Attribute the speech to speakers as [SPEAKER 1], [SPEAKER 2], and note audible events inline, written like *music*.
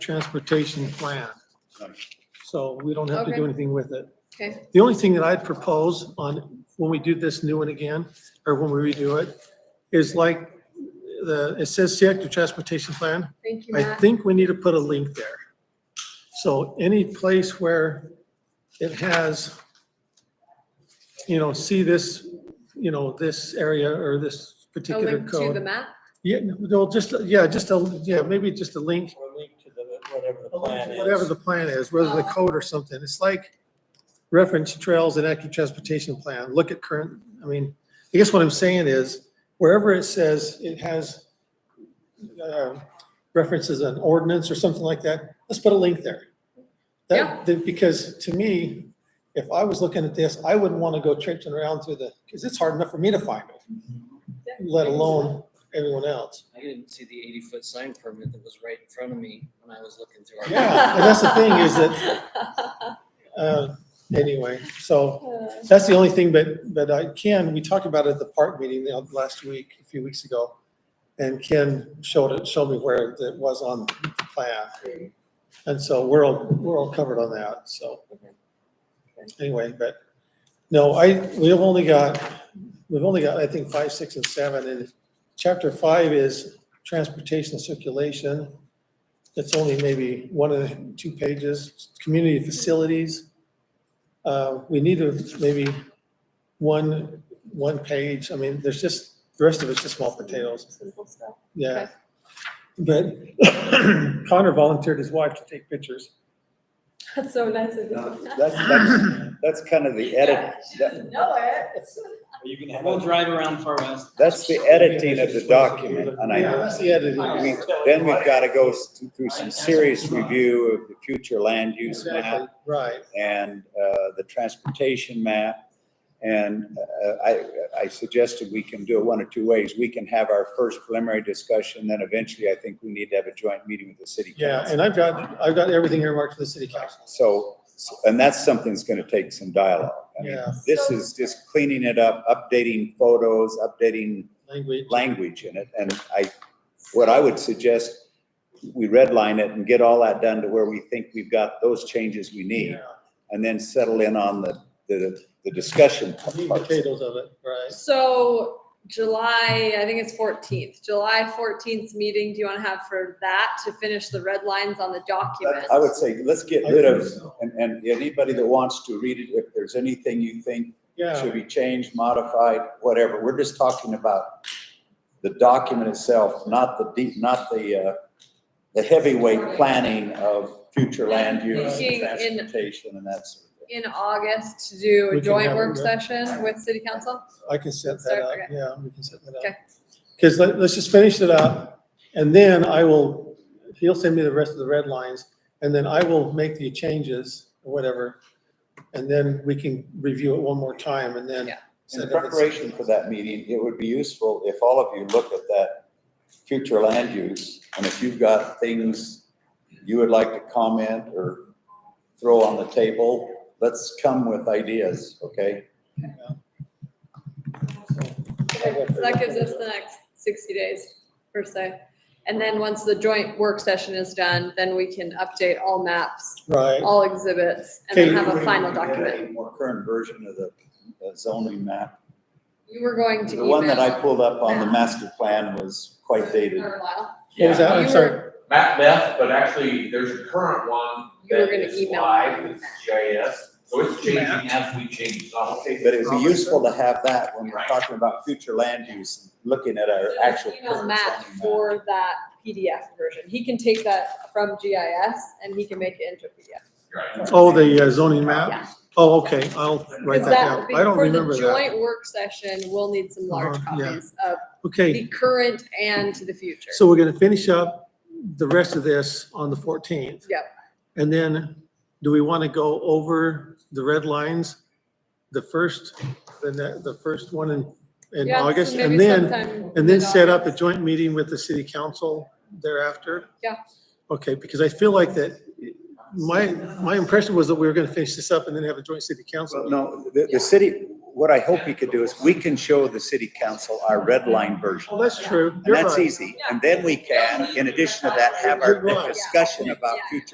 [SPEAKER 1] transportation plan. So we don't have to do
[SPEAKER 2] Okay.
[SPEAKER 1] anything with it.
[SPEAKER 2] Okay.
[SPEAKER 1] The only thing that I'd propose on, when we do this new one again, or when we redo it, is like the, it says see active transportation plan.
[SPEAKER 2] Thank you,
[SPEAKER 1] I
[SPEAKER 2] Matt.
[SPEAKER 1] think we need to put a link there. So any place where it has, you know, see this, you know, this area or this
[SPEAKER 2] A
[SPEAKER 1] particular
[SPEAKER 2] link to the
[SPEAKER 1] code.
[SPEAKER 2] map?
[SPEAKER 1] Yeah, no, just, yeah, just a, yeah, maybe just a link,
[SPEAKER 3] Or link to the, whatever the plan is.
[SPEAKER 1] whatever the plan is, whether the code or something. It's like reference trails and active transportation plan. Look at current, I mean, I guess what I'm saying is wherever it says it has uh, references an ordinance or something like that, let's put a link there.
[SPEAKER 2] Yeah.
[SPEAKER 1] That, that- because to me, if I was looking at this, I wouldn't want to go traipsing around through the, because it's hard enough for me to find it, let alone everyone else.
[SPEAKER 4] I didn't see the eighty-foot sign permit that was right in front of me when I was looking through. our- *laughs*
[SPEAKER 2] *laughs*
[SPEAKER 1] Yeah, and that's the thing is Uh, Anyway, so.
[SPEAKER 2] Uh,
[SPEAKER 1] That's the only thing, but, but I can, we talked about it at the park meeting the oth- last week, a few weeks ago. And Ken showed it, showed me where it was on the plan. And so we're all, we're all covered on that, so. Anyway, but, no, I, we've only got, we've only got, I think, five, six, and seven, and chapter five is transportation circulation. It's only maybe one of the two pages, community facilities. Uh, we need to maybe one, one page, I mean, there's just, the rest of it's just small potatoes,
[SPEAKER 2] Simple stuff.
[SPEAKER 1] yeah. But *coughs* Connor volunteered his wife to take pictures.
[SPEAKER 2] That's so nice of *laughs*
[SPEAKER 5] No,
[SPEAKER 2] you.
[SPEAKER 5] That's, that's, that's kind of the edit, that,
[SPEAKER 2] Know it.
[SPEAKER 3] Are you gonna have
[SPEAKER 4] We'll
[SPEAKER 3] a-
[SPEAKER 4] drive around Far West.
[SPEAKER 5] that's the editing of the document, and
[SPEAKER 1] Yeah,
[SPEAKER 5] I,
[SPEAKER 1] that's the editing.
[SPEAKER 5] we, then we've gotta go s- through some serious review of the future land use
[SPEAKER 1] Exactly,
[SPEAKER 5] map
[SPEAKER 1] right,
[SPEAKER 5] and, uh, the transportation map. And, uh, I, I suggested we can do it one of two ways. We can have our first preliminary discussion, then eventually I think we need to have a joint meeting with the city
[SPEAKER 1] yeah,
[SPEAKER 5] council.
[SPEAKER 1] and I've got, I've got everything earmarked for the city council.
[SPEAKER 5] So, and that's something that's gonna take some dialogue. I mean,
[SPEAKER 1] Yeah.
[SPEAKER 5] This is just cleaning it up, updating photos, updating
[SPEAKER 1] Language,
[SPEAKER 5] language in it, and I, what I would suggest, we redline it and get all that done to where we think we've got those changes we need,
[SPEAKER 1] yeah,
[SPEAKER 5] and then settle in on the, the, the discussion
[SPEAKER 1] meat and
[SPEAKER 5] parts.
[SPEAKER 1] potatoes of it, right.
[SPEAKER 2] So July, I think it's fourteenth, July fourteenth meeting, do you want to have for that to finish the red lines on the document?
[SPEAKER 5] I would say, let's get rid of, and, and anybody that wants to read it, if there's anything you think
[SPEAKER 1] Yeah,
[SPEAKER 5] should be changed, modified, whatever, we're just talking about the document itself, not the deep, not the, uh, the heavyweight planning of future land use and
[SPEAKER 2] Thinking in-
[SPEAKER 5] transportation and that sort of thing.
[SPEAKER 2] In August to do
[SPEAKER 1] We can
[SPEAKER 2] a
[SPEAKER 1] have
[SPEAKER 2] joint
[SPEAKER 1] a
[SPEAKER 2] work
[SPEAKER 1] red-
[SPEAKER 2] session with city council?
[SPEAKER 1] I can set
[SPEAKER 2] Let's
[SPEAKER 1] that
[SPEAKER 2] start,
[SPEAKER 1] up,
[SPEAKER 2] okay.
[SPEAKER 1] yeah, we can set that up.
[SPEAKER 2] Okay.
[SPEAKER 1] Because let, let's just finish it up, and then I will, he'll send me the rest of the red lines, and then I will make the changes, or whatever. And then we can review it one more time, and then.
[SPEAKER 2] Yeah.
[SPEAKER 5] In
[SPEAKER 1] send it-
[SPEAKER 5] preparation for that meeting, it would be useful if all of you look at that future land use, and if you've got things you would like to comment or throw on the table, let's come with ideas, okay?
[SPEAKER 2] Okay, So that gives us the next sixty days per se. And then once the joint work session is done, then we can update all maps,
[SPEAKER 1] Right,
[SPEAKER 2] all exhibits, and then have a final
[SPEAKER 5] Get
[SPEAKER 2] document.
[SPEAKER 5] a More current version of the the zoning map.
[SPEAKER 2] You were going to
[SPEAKER 5] The
[SPEAKER 2] email.
[SPEAKER 5] one that I pulled up on the master plan was quite dated.
[SPEAKER 2] For a while.
[SPEAKER 1] what was
[SPEAKER 6] Yeah,
[SPEAKER 1] that, I'm
[SPEAKER 2] You
[SPEAKER 1] sorry,
[SPEAKER 6] Matt Beth, but actually, there's a current one
[SPEAKER 2] You were
[SPEAKER 6] that
[SPEAKER 2] gonna
[SPEAKER 6] is
[SPEAKER 2] email
[SPEAKER 6] live,
[SPEAKER 2] me.
[SPEAKER 6] it's GIS, so it's changing as we change, so I'll take.
[SPEAKER 5] But it would be useful to have that when we're talking about future land use, looking at our actual.
[SPEAKER 2] Email
[SPEAKER 5] current
[SPEAKER 2] Matt
[SPEAKER 5] zoning map.
[SPEAKER 2] for that PDF version. He can take that from GIS and he can make it into a PDF.
[SPEAKER 6] Right.
[SPEAKER 1] oh, the uh, zoning
[SPEAKER 2] Yeah.
[SPEAKER 1] map, oh, okay, I'll write
[SPEAKER 2] Because
[SPEAKER 1] that down, I don't remember
[SPEAKER 2] For the
[SPEAKER 1] that,
[SPEAKER 2] joint work session, we'll need some large
[SPEAKER 1] Uh-huh, yeah.
[SPEAKER 2] copies of
[SPEAKER 1] okay.
[SPEAKER 2] the current and to the future.
[SPEAKER 1] So we're gonna finish up the rest of this on the fourteenth.
[SPEAKER 2] Yep.
[SPEAKER 1] And then, do we wanna go over the red lines, the first, the, ne- the first one in, in
[SPEAKER 2] Yeah, so
[SPEAKER 1] August?
[SPEAKER 2] maybe
[SPEAKER 1] And then,
[SPEAKER 2] sometime
[SPEAKER 1] and then set up a
[SPEAKER 2] mid-August.
[SPEAKER 1] joint meeting with the city council thereafter?
[SPEAKER 2] Yeah.
[SPEAKER 1] Okay, because I feel like that, my, my impression was that we were gonna finish this up and then have a joint city council.
[SPEAKER 5] Well, no, the, the city, what I hope we could do is we can show the city council our red line version.
[SPEAKER 1] Well, Oh, that's true.
[SPEAKER 5] And
[SPEAKER 1] You're
[SPEAKER 5] that's
[SPEAKER 1] right.
[SPEAKER 5] easy. And then we can, in addition to that, have our
[SPEAKER 1] You're right.
[SPEAKER 5] discussion about
[SPEAKER 2] Yeah.
[SPEAKER 5] future